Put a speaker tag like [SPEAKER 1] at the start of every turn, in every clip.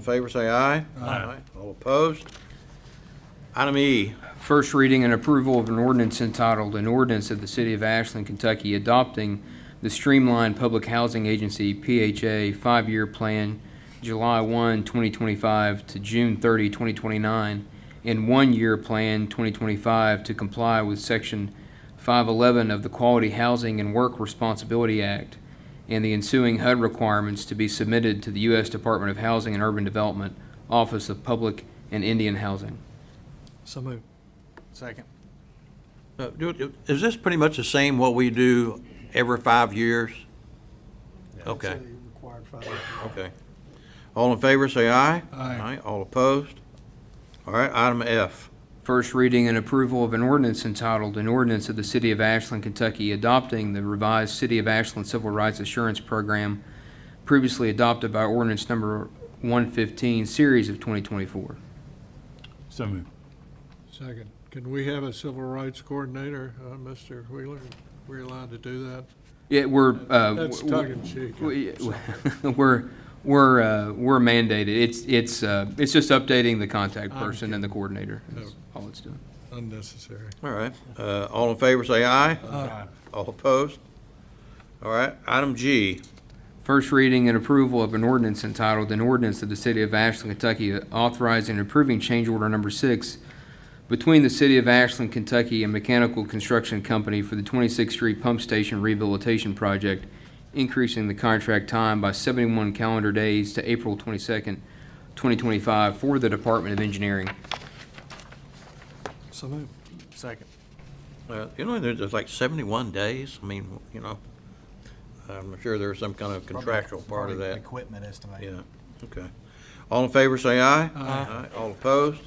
[SPEAKER 1] favor, say aye. Aye. All opposed? Item E,
[SPEAKER 2] First reading and approval of an ordinance entitled, An Ordinance of the City of Ashland, Kentucky Adopting the Streamlined Public Housing Agency PHA Five-Year Plan, July 1, 2025 to June 30, 2029, and One-Year Plan, 2025, to comply with Section 511 of the Quality Housing and Work Responsibility Act and the ensuing HUD requirements to be submitted to the U.S. Department of Housing and Urban Development, Office of Public and Indian Housing.
[SPEAKER 3] So moved. Second.
[SPEAKER 1] Uh, do- is this pretty much the same what we do every five years? Okay,
[SPEAKER 3] Required five.
[SPEAKER 1] okay. All in favor, say aye.
[SPEAKER 3] Aye.
[SPEAKER 1] All opposed? All right, item F.
[SPEAKER 2] First reading and approval of an ordinance entitled, An Ordinance of the City of Ashland, Kentucky Adopting the Revised City of Ashland Civil Rights Assurance Program previously adopted by ordinance number 115, series of 2024.
[SPEAKER 4] So moved.
[SPEAKER 3] Second. Can we have a civil rights coordinator, uh, Mr. Wheeler? We're allowed to do that?
[SPEAKER 2] Yeah, we're, uh,
[SPEAKER 3] That's
[SPEAKER 2] w-
[SPEAKER 3] tongue in cheek.
[SPEAKER 2] we- we're, we're, uh, we're mandated. It's, it's, uh, it's just updating the contact person and the coordinator. That's
[SPEAKER 3] Oh.
[SPEAKER 2] all it's doing.
[SPEAKER 3] Unnecessary.
[SPEAKER 1] All right, uh, all in favor, say aye.
[SPEAKER 3] Uh,
[SPEAKER 1] All opposed? All right, item G.
[SPEAKER 2] First reading and approval of an ordinance entitled, An Ordinance of the City of Ashland, Kentucky Authorizing and Approving Change Order Number Six Between the City of Ashland, Kentucky and Mechanical Construction Company for the 26th Street Pump Station Rehabilitation Project, increasing the contract time by 71 calendar days to April 22nd, 2025 for the Department of Engineering.
[SPEAKER 3] So moved. Second.
[SPEAKER 1] Uh, You know, there- there's like 71 days, I mean, you know, I'm sure there's some kind of contractual part of that.
[SPEAKER 5] Equipment estimate.
[SPEAKER 1] Yeah, okay. All in favor, say aye. Aye. All opposed?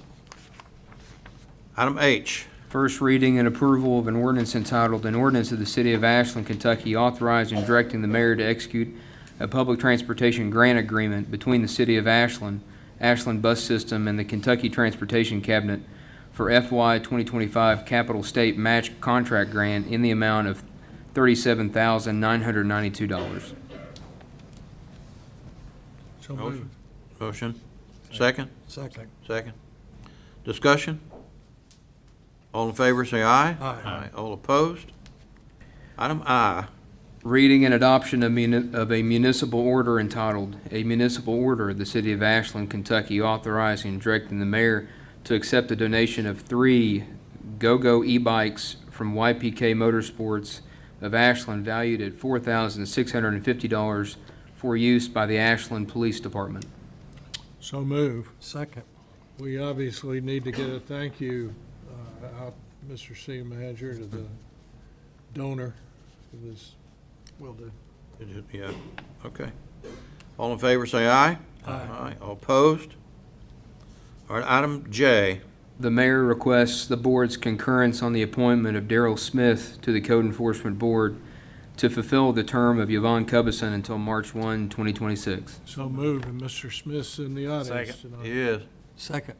[SPEAKER 1] Item H,
[SPEAKER 2] First reading and approval of an ordinance entitled, An Ordinance of the City of Ashland, Kentucky authorizing and directing the mayor to execute a public transportation grant agreement between the City of Ashland, Ashland Bus System, and the Kentucky Transportation Cabinet for FY 2025 Capital State Match Contract Grant in the amount of $37,992.
[SPEAKER 3] So
[SPEAKER 1] Motion.
[SPEAKER 3] moved.
[SPEAKER 1] motion. Second,
[SPEAKER 3] Second.
[SPEAKER 1] second. Discussion? All in favor, say aye.
[SPEAKER 3] Aye.
[SPEAKER 1] All opposed? Item I,
[SPEAKER 2] Reading and adoption of muni- of a municipal order entitled, "A Municipal Order of the City of Ashland, Kentucky Authorizing and Directing the Mayor to Accept a Donation of Three Go-Go E-Bikes from YPK Motorsports of Ashland Valued at $4,650 for use by the Ashland Police Department."
[SPEAKER 3] So move. Second. We obviously need to get a thank you uh, out, Mr. City Manager, to the donor of this. Will do.
[SPEAKER 1] yeah, okay. All in favor, say aye. Aye. All opposed? All right, item J,
[SPEAKER 2] The mayor requests the board's concurrence on the appointment of Daryl Smith to the Code Enforcement Board to fulfill the term of Yvonne Cubison until March 1, 2026.
[SPEAKER 3] So moved, and Mr. Smith's in the audience tonight.
[SPEAKER 1] yes.
[SPEAKER 3] Second.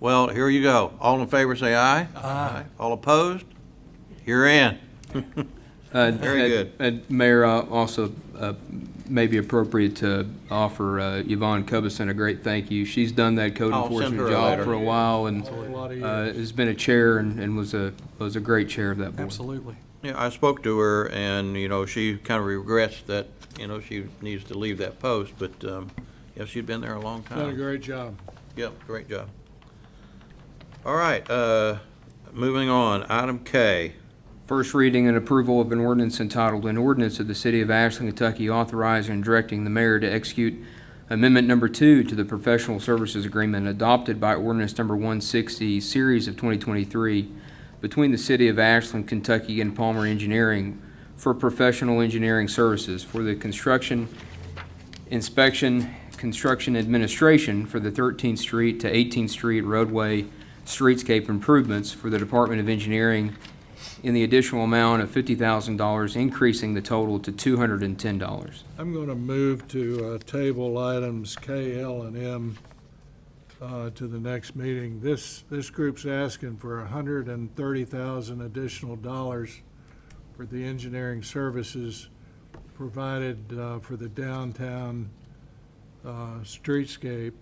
[SPEAKER 1] Well, here you go. All in favor, say aye. Aye. All opposed? You're in.
[SPEAKER 2] Uh,
[SPEAKER 1] Very
[SPEAKER 2] uh,
[SPEAKER 1] good.
[SPEAKER 2] uh, Mayor, uh, also, uh, may be appropriate to offer uh, Yvonne Cubison a great thank you. She's done that code
[SPEAKER 1] I'll send her
[SPEAKER 2] enforcement
[SPEAKER 1] a
[SPEAKER 2] job
[SPEAKER 1] letter.
[SPEAKER 2] for a while and
[SPEAKER 3] A lot of
[SPEAKER 2] uh,
[SPEAKER 3] years.
[SPEAKER 2] has been a chair and and was a, was a great chair of that board.
[SPEAKER 3] Absolutely.
[SPEAKER 1] Yeah, I spoke to her, and, you know, she kind of regrets that, you know, she needs to leave that post, but, um, yeah, she'd been there a long
[SPEAKER 3] Done a
[SPEAKER 1] time.
[SPEAKER 3] great job.
[SPEAKER 1] Yep, great job. All right, uh, moving on, item K.
[SPEAKER 2] First reading and approval of an ordinance entitled, An Ordinance of the City of Ashland, Kentucky Authorizing and Directing the Mayor to Execute Amendment Number Two to the Professional Services Agreement adopted by Ordinance Number 160, Series of 2023, between the City of Ashland, Kentucky and Palmer Engineering for professional engineering services for the construction, inspection, construction administration for the 13th Street to 18th Street roadway streetscape improvements for the Department of Engineering in the additional amount of $50,000, increasing the total to $210.
[SPEAKER 3] I'm going to move to uh, table items K, L, and M uh, to the next meeting. This, this group's asking for hundred and thirty thousand additional dollars for the engineering services provided uh, for the downtown uh, streetscape